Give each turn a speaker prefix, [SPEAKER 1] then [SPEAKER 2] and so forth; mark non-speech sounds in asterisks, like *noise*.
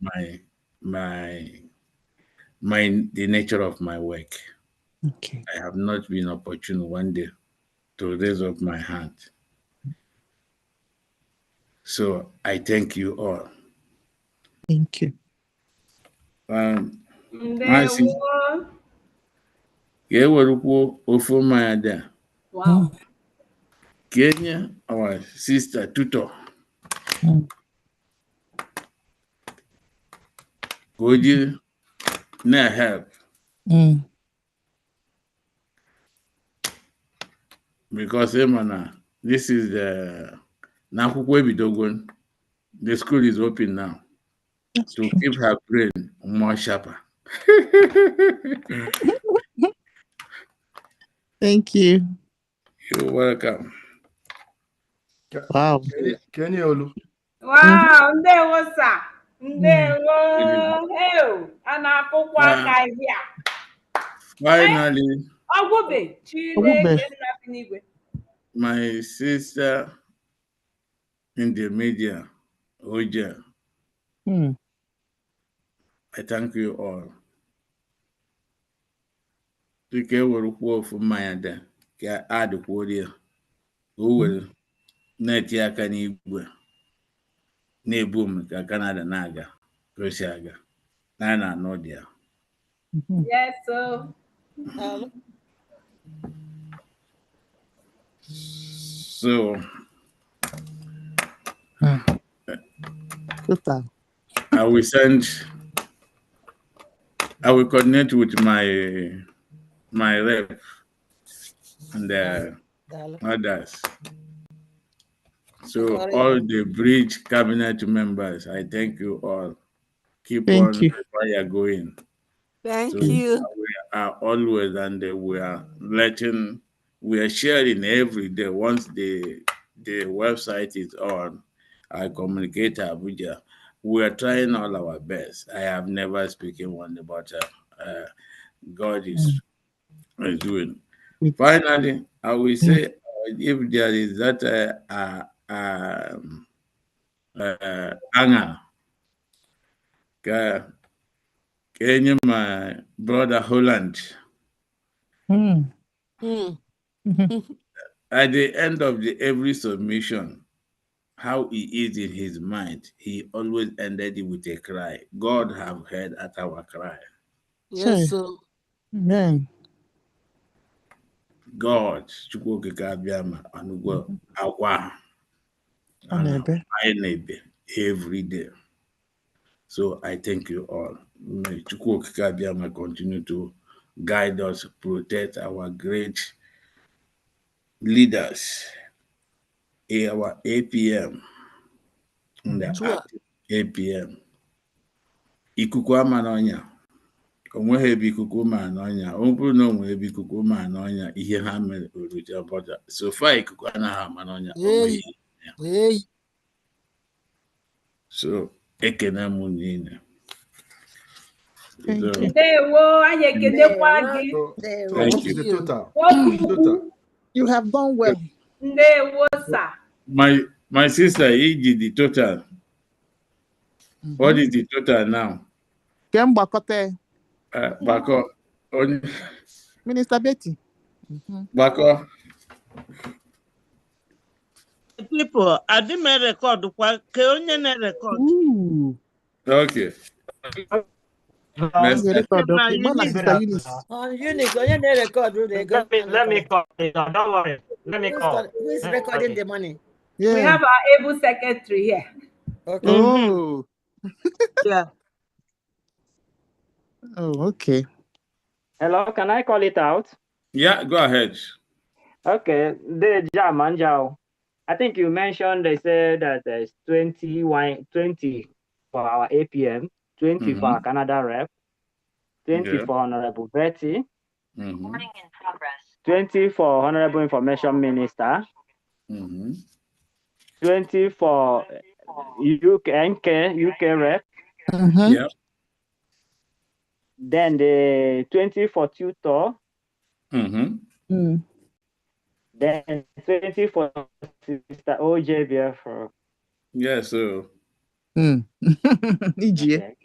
[SPEAKER 1] my my my the nature of my work.
[SPEAKER 2] Okay.
[SPEAKER 1] I have not been opportune one day to raise up my hand. So I thank you all.
[SPEAKER 2] Thank you.
[SPEAKER 1] Um,
[SPEAKER 3] Ndewo.
[SPEAKER 1] Maazị. ka e werekwuo ofe mmanya dị a
[SPEAKER 3] Wow.
[SPEAKER 1] ka enye our sister tutor
[SPEAKER 2] Mm.
[SPEAKER 1] ka o jiri na-help
[SPEAKER 3] Hmm.
[SPEAKER 2] Mm.
[SPEAKER 1] because ịma na this is the n'akwụkwọ ebidogo the school is open now
[SPEAKER 2] That's
[SPEAKER 1] to
[SPEAKER 2] true.
[SPEAKER 1] keep her brain more sharper.
[SPEAKER 2] Thank you.
[SPEAKER 1] You're welcome.
[SPEAKER 2] Wow.
[SPEAKER 4] kenye olu
[SPEAKER 3] Wow, ndewo sir. Ndewo.
[SPEAKER 1] Mm.
[SPEAKER 3] Hey, oh, a na-akụkwa
[SPEAKER 1] Wow.
[SPEAKER 3] aka ezi a.
[SPEAKER 1] Finally,
[SPEAKER 3] Ọgwụbe
[SPEAKER 2] Ọgwụbe.
[SPEAKER 3] Chineke nna bi n'igwe.
[SPEAKER 1] my sister in the media, Oja,
[SPEAKER 3] Hmm.
[SPEAKER 2] Mm.
[SPEAKER 1] I thank you all. Dịka e were kwuo ofu mmanya dị ka a dịkwuorie ka o were na-eti aka n'igwe na-ebu m ka Canada na-aga ka o si aga na a na-anọ dị ya.
[SPEAKER 2] Mhm.
[SPEAKER 3] Yes, so.
[SPEAKER 1] So
[SPEAKER 2] Total.
[SPEAKER 1] I will send. I will coordinate with my my rep and the others. So all the bridge cabinet members, I thank you all. Keep
[SPEAKER 2] Thank
[SPEAKER 1] on
[SPEAKER 2] you.
[SPEAKER 1] the fire going.
[SPEAKER 5] Thank
[SPEAKER 1] So
[SPEAKER 5] you.
[SPEAKER 1] we are always and we are letting we are sharing every day. Once the the website is on, I communicate to Abuja. We are trying all our best. I have never spoken one about uh, uh, God is, is doing.
[SPEAKER 2] Mm.
[SPEAKER 1] Finally, I will say uh, if there is that uh, uh, um, uh, anger, ka- ka enye my brother Holland.
[SPEAKER 3] Hmm.
[SPEAKER 2] Mm. *laughs*
[SPEAKER 5] Mm.
[SPEAKER 1] at the end of the every submission, how he is in his mind, he always ended it with a cry. God have heard at our cry.
[SPEAKER 5] Yes, so.
[SPEAKER 2] Amen.
[SPEAKER 1] God, Chukwu okike abịama, ọnụgwọ akwa
[SPEAKER 2] Ọ na-ebe.
[SPEAKER 1] anyị na-ebe every day. So I thank you all. May Chukwu okike abịama continue to guide us, protect our great leaders, our APM, and the
[SPEAKER 5] Sure.
[SPEAKER 1] active APM. Ikuku ama n'ọnya. O nweghị ebe ikuku ma n'ọnya. Ọ bụrụ na o nwere ebe ikuku ma n'ọnya, ihe ha mere oruja bọda. So far, ikuku anaghị ama n'ọnya. O nweghị ihe.
[SPEAKER 5] Hey.
[SPEAKER 1] So ekene m unu niile.
[SPEAKER 2] Thank
[SPEAKER 1] So,
[SPEAKER 2] you.
[SPEAKER 3] Ndewo, anyị ekelekwa gị.
[SPEAKER 4] so
[SPEAKER 1] Thank
[SPEAKER 4] what is the
[SPEAKER 5] you.
[SPEAKER 4] total
[SPEAKER 3] Nwoke ukwu,
[SPEAKER 4] total
[SPEAKER 2] You have done well.
[SPEAKER 3] ndewo sir.
[SPEAKER 1] My my sister, iji the total.
[SPEAKER 2] Mm-hmm.
[SPEAKER 1] What is the total now?
[SPEAKER 2] Kee mgbakọta ya.
[SPEAKER 1] Uh, Bako, onye
[SPEAKER 2] Minister Betty.
[SPEAKER 1] Bako,
[SPEAKER 6] Pipo, adị m erekọdụ kwa ka onye na-erekọdụ.
[SPEAKER 2] Ooh.
[SPEAKER 1] okay.
[SPEAKER 2] Ọ
[SPEAKER 1] Merci.
[SPEAKER 2] ga-erekọdụ okwu.
[SPEAKER 6] Mama,
[SPEAKER 2] Gwa na
[SPEAKER 6] you
[SPEAKER 2] Sister Eunice.
[SPEAKER 5] On Unix, onye na-erekọdụ na-ego.
[SPEAKER 7] Let me let me call it down. Don't worry. Let me
[SPEAKER 5] Who's
[SPEAKER 7] call.
[SPEAKER 5] con- Who is
[SPEAKER 7] Let me call
[SPEAKER 5] recording
[SPEAKER 7] it.
[SPEAKER 5] the money?
[SPEAKER 3] We
[SPEAKER 2] Yeah.
[SPEAKER 3] have our able secretary here.
[SPEAKER 2] *laughs*
[SPEAKER 5] Okay.
[SPEAKER 2] Oh. Oh, okay.
[SPEAKER 7] Hello, can I call it out?
[SPEAKER 1] Yeah, go ahead.
[SPEAKER 7] Okay. The Jamanjao. I think you mentioned they said that there's 20, wine- 20 for our APM, 20 for our Canada rep, 20
[SPEAKER 1] Yeah.
[SPEAKER 7] for Honorable Betty,
[SPEAKER 1] Mhm,
[SPEAKER 7] 20 for Honorable Information Minister,
[SPEAKER 1] mhm,
[SPEAKER 7] 20 for UK, NK, UK rep,
[SPEAKER 3] Mm-hmm.
[SPEAKER 2] Mhm.
[SPEAKER 1] Yeah.
[SPEAKER 7] then the 20 for tutor,
[SPEAKER 1] mhm.
[SPEAKER 2] Mm.
[SPEAKER 7] Then 20 for Sister OJ Biafra.
[SPEAKER 1] Yeah, so
[SPEAKER 8] Mm. Iji ye.
[SPEAKER 2] Hmm. *laughs* Okay.